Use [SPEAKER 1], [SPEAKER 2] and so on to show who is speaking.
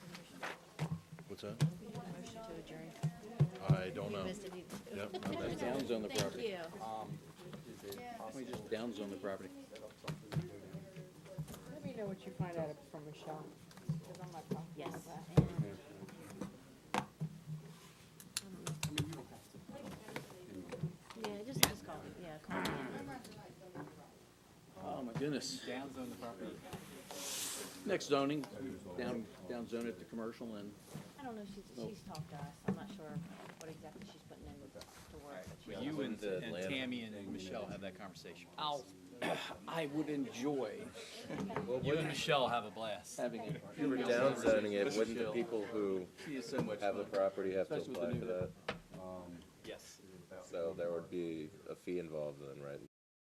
[SPEAKER 1] What's that?
[SPEAKER 2] Motion to adjourn.
[SPEAKER 1] I don't know.
[SPEAKER 2] Missed it. You-
[SPEAKER 1] Yep, I missed it.
[SPEAKER 3] Downzone the
[SPEAKER 2] Thank
[SPEAKER 3] property.
[SPEAKER 2] you.
[SPEAKER 3] We just downzone the property.
[SPEAKER 4] Let me know what you find out from Michelle, because I'm not comfortable
[SPEAKER 2] Yes.
[SPEAKER 4] with that.
[SPEAKER 2] And Yeah, just, just call, me. yeah, call me.
[SPEAKER 3] Oh, my goodness.
[SPEAKER 5] downzone the property.
[SPEAKER 3] Next zoning, down, downzone it to commercial and
[SPEAKER 2] I don't know, she's, she's talked to us, I'm not sure what exactly she's putting in to work, but she,
[SPEAKER 5] But you and and Tammy and Michelle have that conversation.
[SPEAKER 3] I'll, I would enjoy
[SPEAKER 5] You and Michelle have a blast.
[SPEAKER 3] having it.
[SPEAKER 6] If you were downzoning it, wouldn't the people who
[SPEAKER 5] She is so much
[SPEAKER 6] have the
[SPEAKER 5] fun.
[SPEAKER 6] property have to
[SPEAKER 3] Especially
[SPEAKER 6] apply
[SPEAKER 3] with the
[SPEAKER 6] for
[SPEAKER 3] new-
[SPEAKER 6] that?
[SPEAKER 5] Yes.
[SPEAKER 6] So there would be a fee involved then, right?